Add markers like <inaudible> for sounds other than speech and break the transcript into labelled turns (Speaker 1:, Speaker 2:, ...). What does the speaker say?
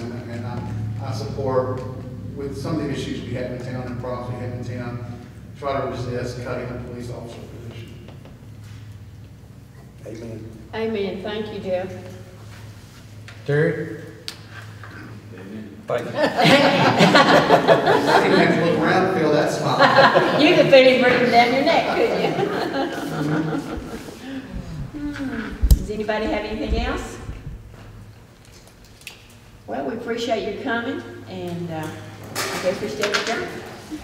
Speaker 1: support with some of the issues we had in town and problems we had in town, try to resist cutting a police officer position.
Speaker 2: Amen.
Speaker 3: Amen, thank you, Jeff.
Speaker 2: Terry? Thank you.
Speaker 1: I didn't have to look around to feel that smile.
Speaker 3: You could put him breathing down your neck, couldn't <laughs> you? Hmm. Does anybody have anything else? Well, we appreciate your coming, and uh, I guess we stay adjourned.